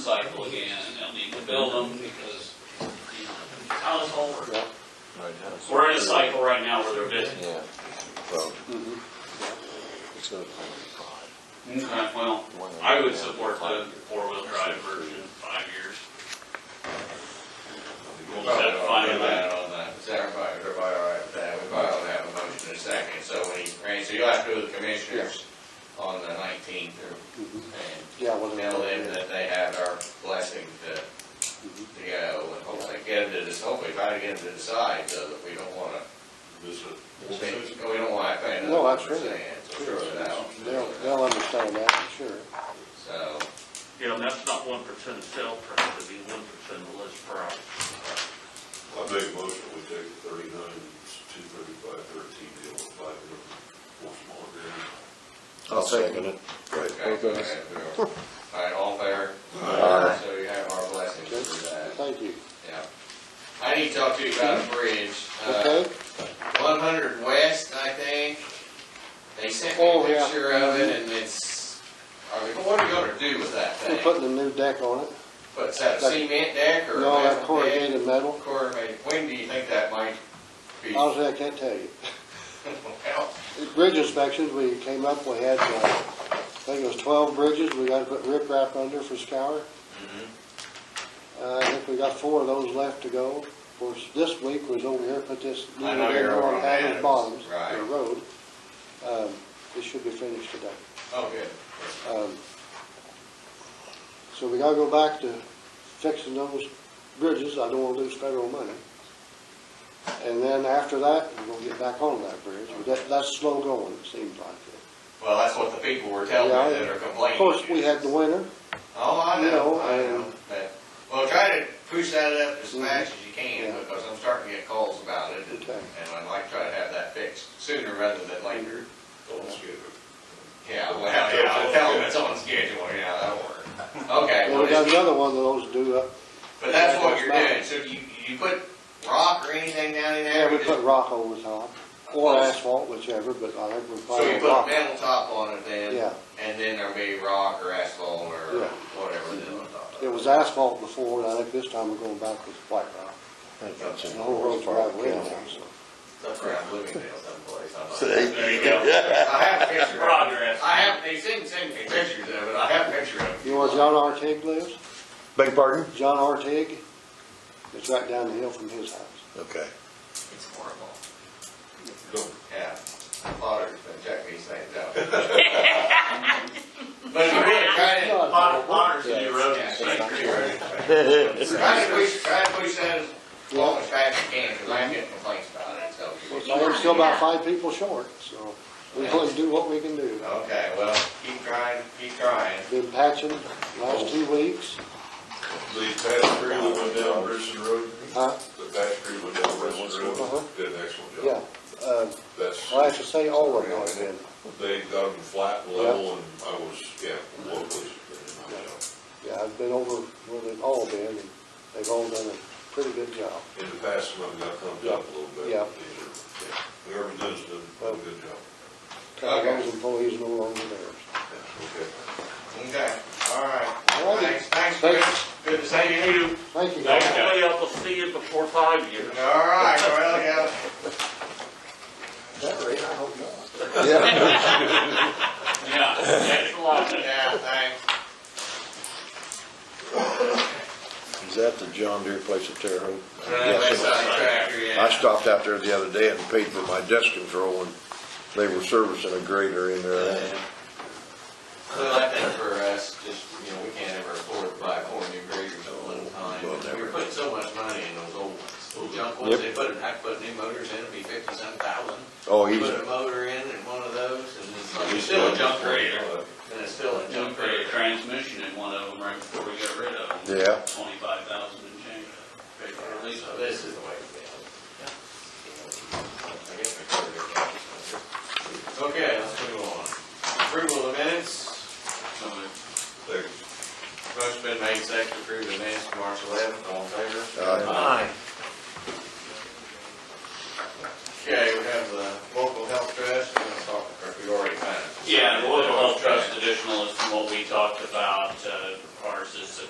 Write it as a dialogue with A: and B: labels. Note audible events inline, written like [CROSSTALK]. A: cycle again, and they'll need to build them because, you know, how's all work?
B: Right, yes.
A: We're in a cycle right now where they're busy.
B: Yeah, well, it's gonna come in
A: Okay, well,
B: five.
A: I would support the four-wheel drive version, five years. We'll just have to find out.
C: on that. Is everybody, everybody all right with that? We probably ought to have a motion in a second, so when he, Randy, so you'll have to do the commissioners on the nineteenth or,
D: Yeah, well,
C: and tell them that they have our blessing to, to go and hopefully get them to, dec- hopefully try to get them to decide so that we don't wanna,
E: This is,
C: we don't wanna have to pay
D: No,
C: another
D: absolutely.
C: percent. Sure, that'll-
D: they'll, they'll understand that, for sure.
C: So,
F: Yeah, that's not one percent sale price, it'd be one percent less price.
E: I make a motion, we take thirty-nine, two thirty-five, thirteen, deal with five year, one small agreement.
B: I'll second it. Right.
C: okay, go ahead, we are- all right, all fair?
B: Aye.
C: So you have our blessing
D: Okay,
C: for that.
D: Thank you.
C: Yeah. I need to talk to you about a bridge. Uh,
D: Okay?
C: One hundred west, I think. They sent me
D: Oh,
C: a
D: yeah.
C: picture of it and it's, are we, what are we gonna do with that
D: We're
C: thing?
D: putting a new deck on it.
C: Put that
D: that-
C: cement deck or?
D: No, that
C: metal deck?
D: corrugated metal.
C: Corrugated. When do you think that might be? [LAUGHS] Well,
D: Honestly, I can't tell you. The Bridge inspections, we came up, we had, uh, I think it was twelve bridges, we gotta put riprap under for scour.
C: Mm-hmm.
D: Uh, I think we got four of those left to go. Of course, this week was over here, put this.
C: I know you're over on Adams,
D: Bottoms, the
C: right.
D: road. Um, It should be finished today.
C: Oh, good.
D: Um, So we gotta go back to fixing those bridges, I don't wanna lose federal money. And then after that, we're gonna get back on that bridge, but that, that's slow going, it seems like.
C: Well, that's what the people were telling me
D: Yeah, I-
C: that are
D: Of
C: complaining.
D: course, we had the winter,
C: Oh, I
D: You
C: know,
D: know,
C: I know.
D: and-
C: But- Well, try to push that up as
D: Mhm.
C: fast as you can,
D: Yeah.
C: because I'm starting to get calls about it, and
D: Okay.
C: and I'd like to try to have that fixed sooner rather than later.
E: Don't skip it.
C: Yeah, well, yeah, I'll tell them it's on schedule, yeah, that'll
D: [LAUGHS]
C: work. Okay,
D: and
C: well,
D: we got
C: just-
D: another one of those due up,
C: but that's what you're
D: Yeah.
C: doing, so you, you put rock or anything down in there?
D: yeah, we
C: just-
D: put rock over the top, or asphalt, whichever, but I think we're
C: So you
D: probably
C: put a
D: rock.
C: metal top on it then,
D: Yeah.
C: and then there'll be rock or asphalt or
D: Yeah.
C: whatever then on top of
D: It was asphalt before, and I think this time we're going back with white rock.
B: The
D: The whole road's right away now, so.
C: That's around Bloomingdale someplace. I might-
A: There you go.
C: I have a picture of it.
A: Progress.
C: I have, they didn't send me pictures of it, I have a picture of it.
D: You know where John Artig lives?
B: Beg pardon?
D: John Artig, it's right down the hill from his house.
B: Okay.
C: It's horrible.
E: Don't
C: Yeah, my father's been checking these things out. But you really try to,
D: Well,
F: Honors to your road.
C: yeah, try to- try to push, try to push that as long as fast as you can, because I'm getting complaints about it, so.
D: so we're still about five people short, so we only do what we can do.
C: Okay, well, keep trying, keep trying.
D: Been patching last two weeks,
E: The patch tree that went down Richardson Road,
D: huh?
E: the patch tree went down Richardson
D: Uh-huh.
E: Road, did an excellent
D: Yeah,
E: job.
D: uh,
E: That's,
D: well, I have to say all of them have been.
E: they got them flat and level and I was, yeah, one place. but in my job.
D: Yeah, I've been over where they've all been, and they've all done a pretty good job.
E: In the past, some of them got thumbs up a little bit.
D: Yeah.
E: These are- yeah. Whoever does them, do a good job.
D: Kind of those employees no longer there.
E: Okay.
C: Okay, all right.
D: All righty.
C: Thanks, thanks, Chris. Good to see you.
D: Thank you. guys.
F: Hopefully I will see you before five years.
C: All right, well, yeah.
D: That rate, I hope not.
A: Yeah, that's a lot.
C: Yeah, thanks.
B: Is that the John Deere place at Terre Haute?
A: Uh,
B: Yes.
C: That's not tractor,
B: I
C: yeah.
B: stopped out there the other day and paid for my dust control and they were servicing a grader in
A: Uh,
B: there.
C: So I think for us, just, you know, we can't ever afford to buy four new graders at one
B: Well,
C: time.
B: never.
C: We were putting so much money in those old ones. Those junk ones,
B: Yep.
C: they put, I put new motors in, it'd be fifty-some thousand.
B: Oh,
C: Put
B: he's,
C: a motor in in one of those, and it's like, it's still a junk grader, and it's still a
A: Jump
C: junk
A: for a
C: grader.
A: transmission in one of them right before we got rid of them.
B: Yeah.
A: Twenty-five thousand and change. Paid for the lease
C: So
A: of it.
C: this is the way to go. Okay, let's move on. Approval of minutes,
A: So it-
E: Thanks.
C: motion been made, second, approve the minutes, from March eleventh, all in favor?
B: uh,
C: Okay, we have the local health trust, we're gonna talk, or we already kind of.
A: Yeah, the local health trust additional is from what we talked about, uh, ours is a